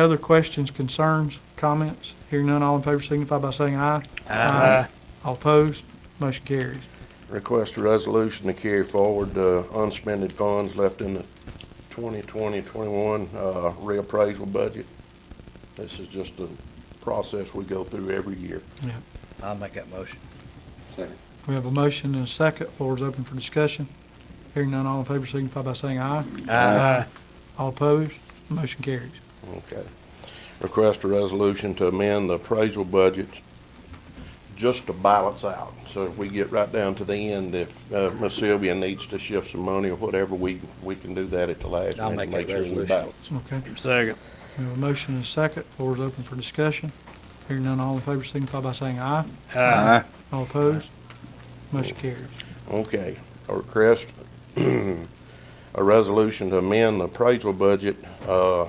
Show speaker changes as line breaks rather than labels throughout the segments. Other questions, concerns, comments? Hearing none, all in favor signify by saying aye. Aye. All opposed, motion carries.
Request a resolution to carry forward uh, unspent funds left in the 2020-21 uh, reappraisal budget. This is just a process we go through every year.
Yeah.
I'll make that motion.
We have a motion and a second. Floor is open for discussion. Hearing none, all in favor signify by saying aye.
Aye.
All opposed, motion carries.
Okay. Request a resolution to amend the appraisal budget just to balance out. So if we get right down to the end, if uh, Miss Sylvia needs to shift some money or whatever, we, we can do that at the last
I'll
minute.
make that
sure we
resolution.
balance.
Okay.
Second.
We have a motion and a second. Floor is open for discussion. Hearing none, all in favor signify by saying aye.
Aye.
All opposed, motion carries.
Okay, a request, a resolution to amend the appraisal budget, uh,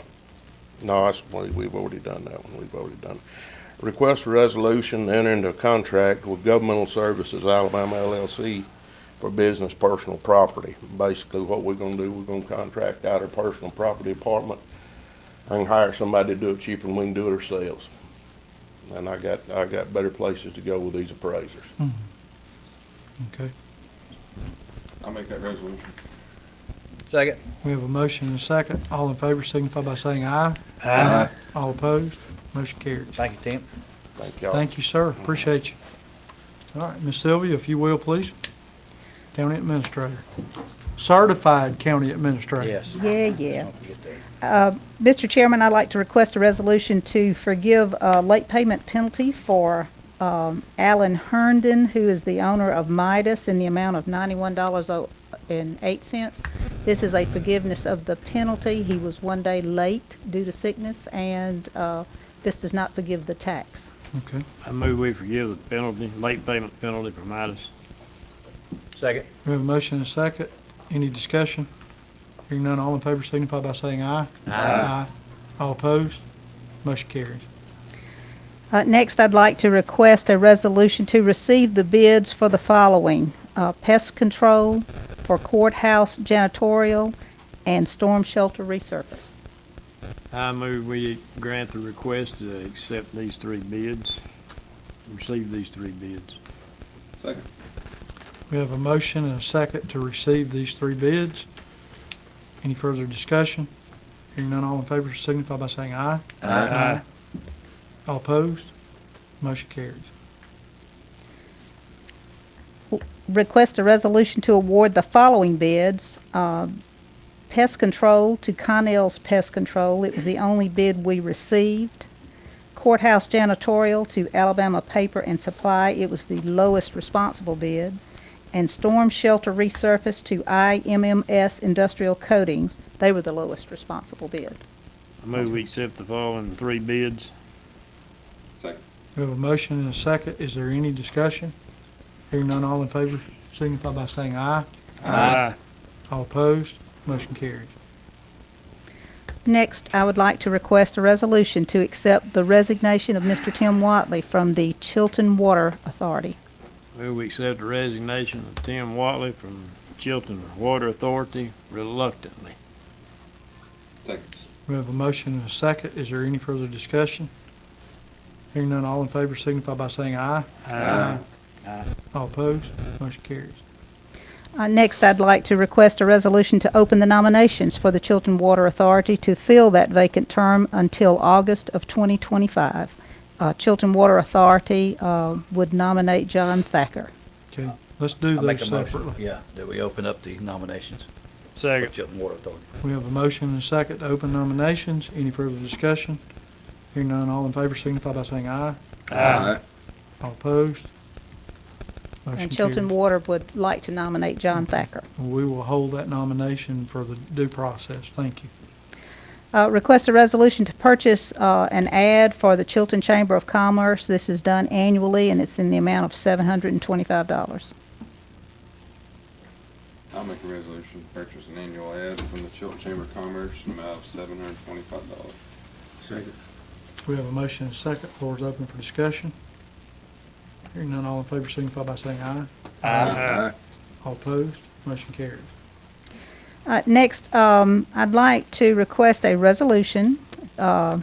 no, that's, we- we've already done that one, we've already done. Request a resolution to enter into a contract with Governmental Services Alabama LLC for business personal property. Basically, what we're gonna do, we're gonna contract out our personal property department and hire somebody to do it cheaper than we can do it ourselves. And I got, I got better places to go with these appraisers.
Okay.
I'll make that resolution.
Second.
We have a motion and a second. All in favor signify by saying aye.
Aye.
All opposed, motion carries.
Thank you, Tim.
Thank y'all.
Thank you, sir. Appreciate you. All right, Ms. Sylvia, if you will, please. County Administrator. Certified County Administrator.
Yes.
Yeah, yeah.
Don't forget that.
Mr. Chairman, I'd like to request a resolution to forgive a late payment penalty for um, Alan Herndon, who is the owner of Midas, in the amount of oh, $91.08. This is a forgiveness of the penalty. He was one day late due to sickness, and uh, this does not forgive the tax.
Okay.
I move we forgive the penalty, late payment penalty for Midas.
Second.
We have a motion and a second. Any discussion? Hearing none, all in favor signify by saying aye. Aye. All opposed? Motion carries.
Uh, Next, I'd like to request a resolution to receive the bids for the following: uh, pest control, for courthouse janitorial, and storm shelter resurface.
I move we grant the request to accept these three bids, receive these three bids.
Second.
We have a motion and a second to receive these three bids. Any further discussion? Hearing none, all in favor signify by saying aye.
Aye.
All opposed? Motion carries.
request a resolution to award the following bids. um, Pest Control to Connell's Pest Control, it was the only bid we received. Courthouse Janitorial to Alabama Paper and Supply, it was the lowest responsible bid. And Storm Shelter Resurface to IMMS Industrial Coatings, they were the lowest responsible bid.
I move we accept the following three bids.
Second.
We have a motion and a second. Is there any discussion? Hearing none, all in favor signify by saying aye.
Aye.
All opposed? Motion carries.
Next, I would like to request a resolution to accept the resignation of Mr. Tim Watley from the Chilton Water Authority.
Move we accept the resignation of Tim Watley from Chilton Water Authority reluctantly.
Second.
We have a motion and a second. Is there any further discussion? Hearing none, all in favor signify by saying aye.
Aye.
All opposed? Motion carries.
Uh, Next, I'd like to request a resolution to open the nominations for the Chilton Water Authority to fill that vacant term until August of 2025. Uh, Chilton Water Authority uh, would nominate John Thacker.
Okay, let's do
I'll make
those
a motion.
separately.
Yeah, that we open up the nominations for
Second.
Chilton Water Authority.
We have a motion and a second to open nominations. Any further discussion? Hearing none, all in favor signify by saying aye.
Aye.
All opposed? Motion
And Chilton
carries.
Water would like to nominate John Thacker.
We will hold that nomination for the due process. Thank you.
Uh, Request a resolution to purchase uh, an ad for the Chilton Chamber of Commerce. This is done annually, and it's in the amount of $725.
I'll make a resolution to purchase an annual ad from the Chilton Chamber of Commerce in the amount of seven hundred and twenty-five dollars. Second.
We have a motion and a second. Floor is open for discussion. Hearing none, all in favor signify by saying aye.
Aye.
All opposed? Motion carries.
Uh, Next, um, I'd like to request a resolution uh,